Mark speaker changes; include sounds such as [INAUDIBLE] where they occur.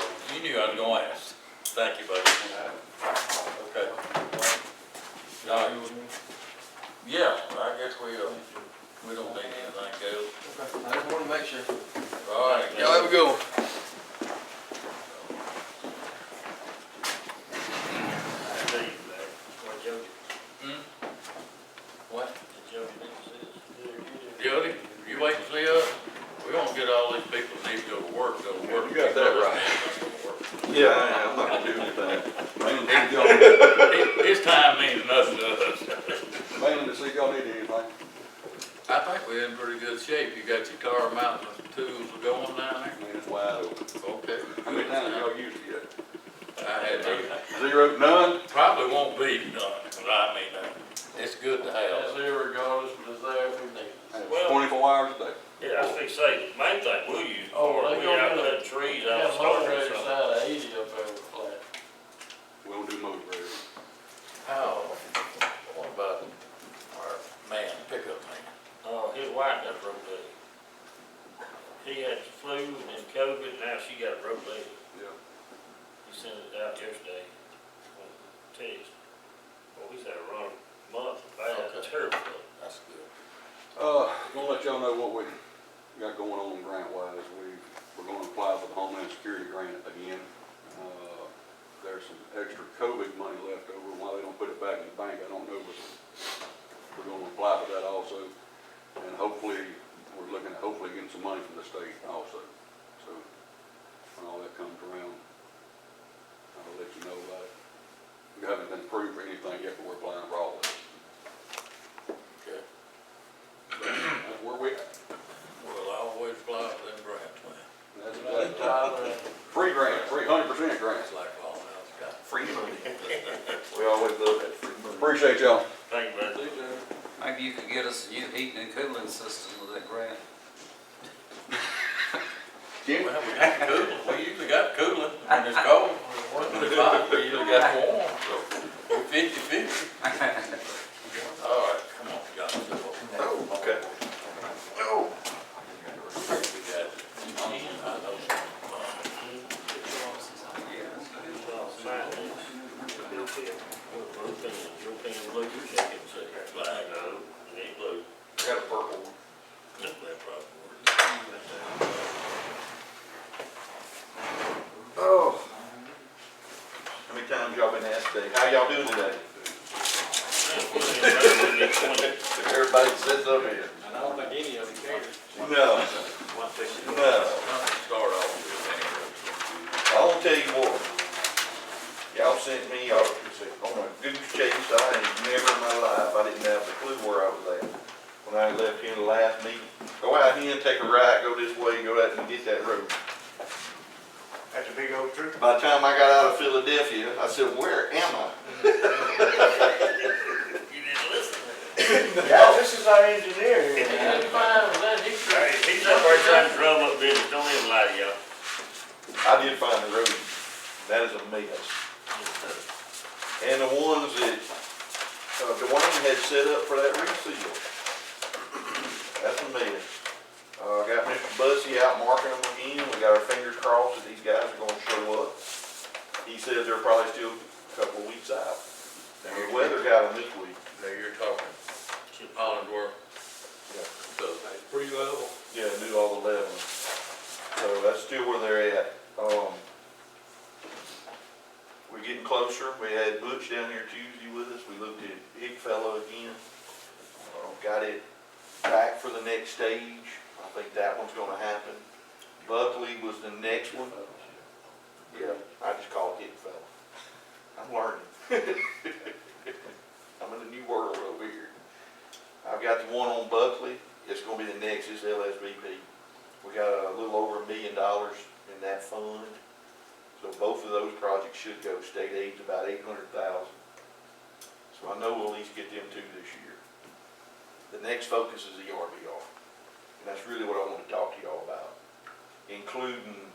Speaker 1: I was gonna ask. Thank you, buddy. Okay. All right. Yeah, I guess we, uh, we don't need anything else.
Speaker 2: I just wanted to make sure.
Speaker 1: All right.
Speaker 2: Y'all have a good one.
Speaker 1: What? Jody, you wait to see us? We gonna get all these people that need to go to work, go to work.
Speaker 3: You got that right. Yeah, I am not gonna do anything. Mainly to see y'all,
Speaker 1: It- His time means nothing to us.
Speaker 3: mainly to see y'all need anything.
Speaker 1: I think we're in pretty good shape. You got your car mount and tools going down
Speaker 3: I mean, it's wide open.
Speaker 1: there? Okay.
Speaker 3: How many times have y'all used it
Speaker 1: I had to.
Speaker 3: yet? Zero, none?
Speaker 1: Probably won't be done, but I mean, uh, it's good to
Speaker 4: That's
Speaker 1: have.
Speaker 4: here regardless of desire if we need it.
Speaker 3: Hey, it's
Speaker 5: Well-
Speaker 3: Twenty-four hours a day.
Speaker 5: Yeah, I think say, the main thing we'll use,
Speaker 4: Oh,
Speaker 5: or
Speaker 4: they
Speaker 5: we
Speaker 4: gonna
Speaker 5: out
Speaker 4: do
Speaker 5: cutting trees
Speaker 4: Yeah,
Speaker 5: out
Speaker 4: motor
Speaker 5: starting
Speaker 4: raced
Speaker 5: something.
Speaker 4: out of eighty up there with flat.
Speaker 3: We don't do motor grading.
Speaker 1: How, what about our man, pickup man?
Speaker 5: Oh, his wife got a broke leg. He had the flu and then COVID, now she got a broke leg.
Speaker 3: Yeah.
Speaker 5: He sent it out yesterday on text. Well, he's had a wrong month, bad,
Speaker 1: Okay.
Speaker 5: terrible. month.
Speaker 1: That's good.
Speaker 3: Uh, gonna let y'all know what we got going on grant wise. We, we're gonna apply for the Homeland Security grant again. Uh, There's some extra COVID money left over. Why they don't put it back in the bank, I don't know, but we're gonna apply for that also. And hopefully, we're looking at hopefully getting some money from the state also. So when all that comes around, I'll let you know about it. We haven't been approved for anything yet, but we're applying for all of it.
Speaker 1: Okay.
Speaker 3: That's where we at.
Speaker 1: We'll always fly with them grants, man.
Speaker 3: That's
Speaker 4: They
Speaker 3: exactly.
Speaker 4: Tyler and
Speaker 3: Free grant, free, hundred percent grant.
Speaker 1: It's like all else got.
Speaker 3: Free money. We always love that free money. Appreciate y'all.
Speaker 5: Thank you, brother.
Speaker 6: Maybe you could get us a new heating and cooling system with that grant. [LAUGHS]
Speaker 3: Jim?
Speaker 1: Well, we got cooling, we usually got cooling when it's cold, when it's hot, we usually got warm, so we're fifty fifty. All right, come on, Johnson.
Speaker 3: Oh, okay. Oh.
Speaker 1: We got it. I know some,
Speaker 5: Sign this. Blue pen. Blue pen, blue pen, blue, check it, check it. Flag, no, it ain't blue.
Speaker 3: I got a purple one.
Speaker 5: That's that problem.
Speaker 3: Oh. How many times y'all been asked today, how y'all doing today? Everybody sits up here.
Speaker 2: I don't think any of them cares.
Speaker 3: No, no.
Speaker 1: uh, Start off with that.
Speaker 3: I'll tell you what, y'all sent me out on a goose chase I ain't never in my life, I didn't have a clue where I was at. When I left here in the last meeting, go out here and take a right, go this way, go out and get that road.
Speaker 7: That's a big old tree.
Speaker 3: By the time I got out of Philadelphia, I said, where am I?
Speaker 5: You didn't listen.
Speaker 7: Yeah, this is our engineer here.
Speaker 4: he didn't find them, that he could.
Speaker 5: Hey, he's up there trying to drum up business, don't even lie to y'all.
Speaker 3: I did find the road, that is a mess. And the ones that uh, Dwayne had set up for that reseal, that's a mess. Uh, I got Mr. Bussey out marking them again, we got our fingers crossed that these guys are gonna show up. He says they're probably still a couple of weeks out. And the weather got them this week.
Speaker 1: Now you're talking Hollandworth.
Speaker 3: Yeah.
Speaker 1: So,
Speaker 3: Yeah, do all the leveling. So that's still where they're at. Um, we're getting closer. We had Butch down here Tuesday with us. We looked at Hick Fellow again. Uh, Got it back for the next stage. I think that one's gonna happen. Buckley was the next one. Yeah, I just called Hick Fellow. I'm learning. [LAUGHS] I'm in a new world over here. I've got the one on Buckley, it's gonna be the next, it's LSVP. We got a little over a million dollars in that fund, so both of those projects should go, state aid's about eight hundred thousand. So I know we'll at least get them two this year. The E next focus is the RBR, and that's really what I wanna talk to y'all about, including